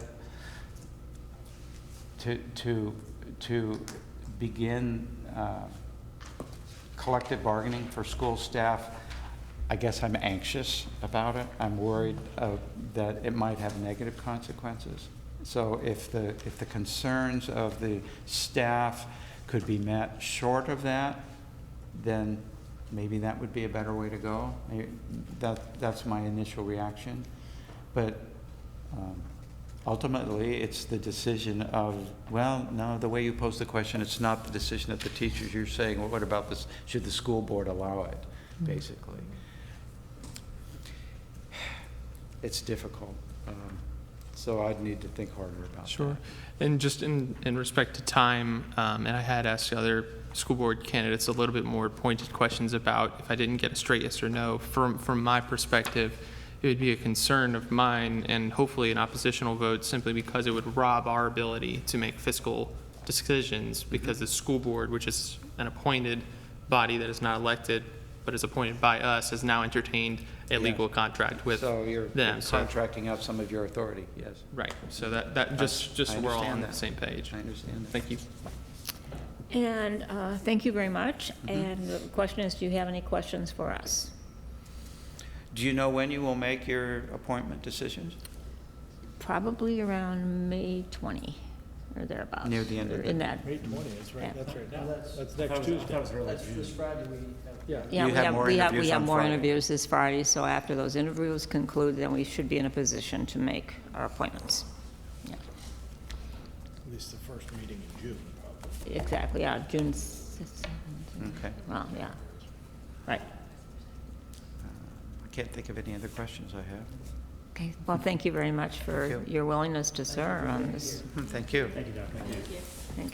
to, to, to begin uh, collective bargaining for school staff, I guess I'm anxious about it. I'm worried uh, that it might have negative consequences. So if the, if the concerns of the staff could be met short of that, then maybe that would be a better way to go. May- That, that's my initial reaction. But um, ultimately, it's the decision of, well, no, the way you pose the question, it's not the decision of the teachers. You're saying, well, what about this, should the school board allow it, basically? It's difficult, um, so I'd need to think harder about that. Sure. And just in, in respect to time, um, and I had asked the other school board candidates a little bit more pointed questions about if I didn't get a straight yes or no. From, from my perspective, it would be a concern of mine and hopefully an oppositional vote simply because it would rob our ability to make fiscal decisions because the school board, which is an appointed body that is not elected, but is appointed by us, has now entertained a Yeah. legal contract with So you're them. you're So- contracting out some of your authority, yes. Right, so that, that, just, just I so we're all on understand the that. same page. I understand that. Thank you. And uh, thank you very much. And the question is, do you have any questions for us? Do you know when you will make your appointment decisions? Probably around May 20 or thereabouts. Near the end of or the- In that, May twentieth, that's right, Yeah. that's right now. That's next Tuesday. That's this Friday we have. Yeah. yeah, You we have have, more we have, interviews we have on more Friday. interviews this Friday, so after those interviews conclude, then we should be in a position to make our appointments. Yeah, At least the first meeting in June, probably. Exactly, yeah, June 17th. Okay. Well, yeah, right. Uh, I can't think of any other questions I have. Okay, well, thank you very much for Thank you. Hmm, your willingness to serve on this. Thank you. Thank